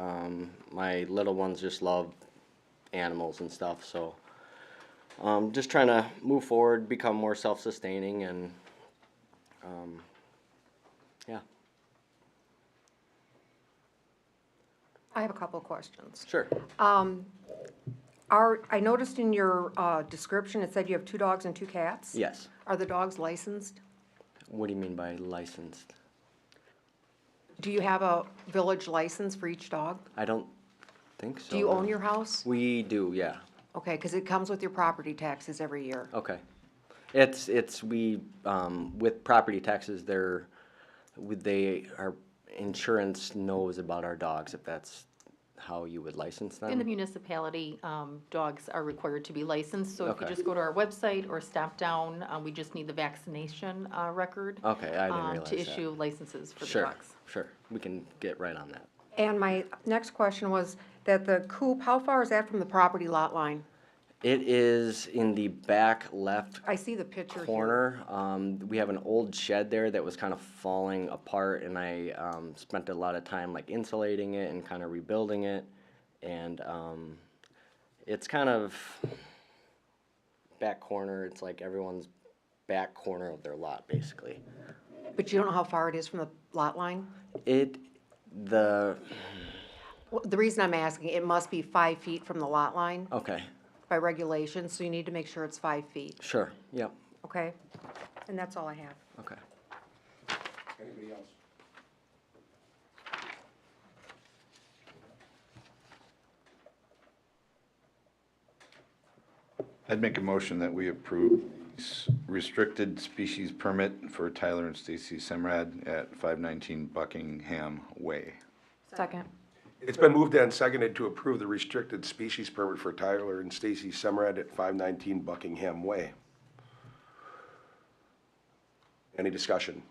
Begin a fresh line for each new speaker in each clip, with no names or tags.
Um, my little ones just love animals and stuff, so um, just trying to move forward, become more self-sustaining, and um, yeah,
I have a couple of questions.
sure.
Are, I noticed in your uh, description, it said you have two dogs and two cats?
Yes.
Are the dogs licensed?
What do you mean by licensed?
Do you have a village license for each dog?
I don't think so.
Do you own
no.
your house?
We do, yeah.
Okay, because it comes with your property taxes every year.
Okay. It's, it's, we, um, with property taxes, they're, would they, our insurance knows about our dogs, if that's how you would license
In the
them?
municipality, um, dogs are required to be licensed, so if you
Okay.
just go to our website or stop down, uh, we just need the vaccination, uh, record.
Okay, I didn't
um,
realize
To
that.
issue licenses for the
Sure,
dogs.
sure. We can get right on that.
And my next question was that the coop, how far is that from the property lot line?
It is in the back left
I see the picture here.
corner. Um, we have an old shed there that was kind of falling apart, and I um, spent a lot of time like insulating it and kind of rebuilding it. And um, it's kind of back corner. It's like everyone's back corner of their lot, basically.
But you don't know how far it is from the lot line?
It the
Well, The reason I'm asking, it must be five feet from the lot line
okay
by regulation, so you need to make sure it's five feet,
sure yep
okay? And that's all I have.
okay.
Anybody else? I'd make a motion that we approve s- restricted species permit for Tyler and Stacy Semrad at five nineteen Buckingham Way.
Second.
It's been moved and seconded to approve the restricted species permit for Tyler and Stacy Semrad at 519 Buckingham Way. Any discussion?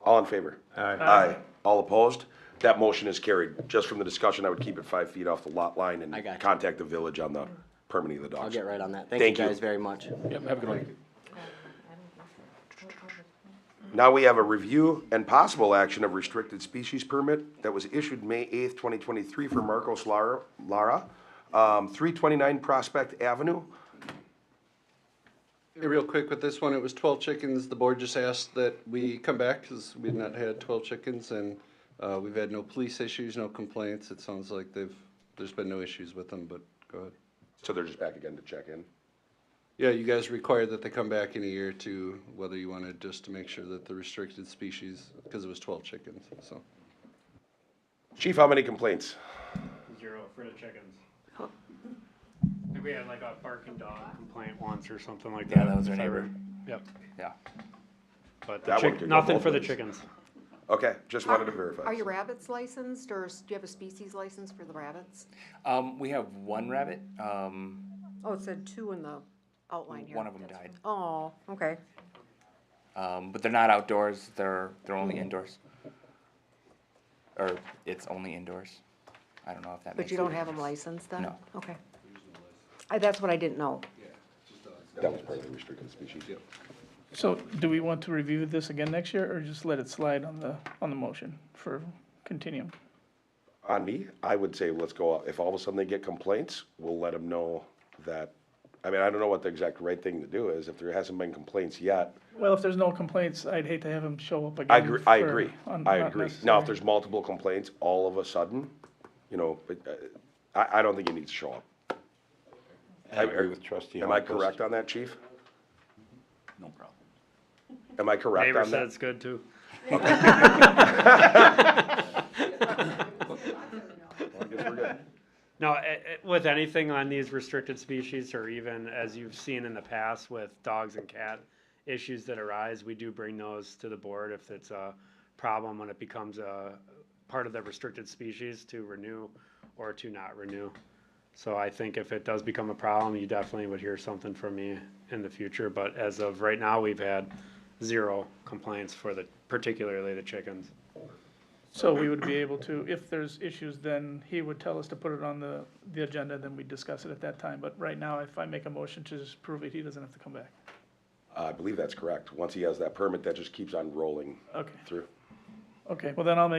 All in favor? Aye. Aye. All opposed? That motion is carried. Just from the discussion, I would keep it five feet off the lot line
I got
and
you.
contact the village on the permitting of the dogs.
I'll get right on that. Thank,
Thank
you
you.
guys very much.
Now we have a review and possible action of restricted species permit that was issued May eighth, twenty twenty-three for Marcos Lara, Lara, um, three twenty-nine Prospect Avenue.
Hey, Real quick with this one, it was twelve chickens. The board just asked that we come back because we've not had twelve chickens and uh, we've had no police issues, no complaints. It sounds like they've, there's been no issues with them, but go ahead.
So they're just back again to check in.
Yeah, you guys require that they come back in a year to whether you wanted just to make sure that the restricted species, because it was twelve chickens, so.
Chief, how many complaints?
Zero for the chickens. I think we had like a barking dog complaint once or something like that. Yeah, that was our neighbor. Yep. Yeah. But the
That one
chick-
could go
nothing
both
for the
ways.
chickens.
Okay, just wanted to verify.
Are your rabbits licensed, or s- do you have a species license for the rabbits?
Um, we have one rabbit. Um,
Oh, it said two in the outline here.
one of them died.
Oh, okay.
Um, but they're not outdoors. They're they're only indoors. Or it's only indoors. I don't know if that.
But
makes
you
a
don't have them
difference.
licensed then?
No.
Okay. I- That's what I didn't know.
That was part of the restricted species, yeah.
So do we want to review this again next year or just let it slide on the, on the motion for continuum?
On me, I would say let's go, if all of a sudden they get complaints, we'll let them know that, I mean, I don't know what the exact right thing to do is. If there hasn't been complaints yet,
Well, if there's no complaints, I'd hate to have him show up again.
I agree, I
for
agree,
un-
I
not
agree. Now, if
necessary.
there's multiple complaints all of a sudden, you know, but, uh, I, I don't think it needs to show up. I agree with trustee. Am I correct on that, chief?
No problem.
Am I correct
Neighbor
on
said
that?
it's good too. Now, eh, eh, with anything on these restricted species, or even as you've seen in the past with dogs and cat issues that arise, we do bring those to the board if it's a problem when it becomes a part of the restricted species to renew or to not renew. So I think if it does become a problem, you definitely would hear something from me in the future, but as of right now, we've had zero complaints for the, particularly the chickens.
So we would be able to, if there's issues, then he would tell us to put it on the, the agenda, then we discuss it at that time. But right now, if I make a motion to just prove it, he doesn't have to come back.
I believe that's correct. Once he has that permit, that just keeps on rolling
Okay,
through.
okay. Well, then I'll make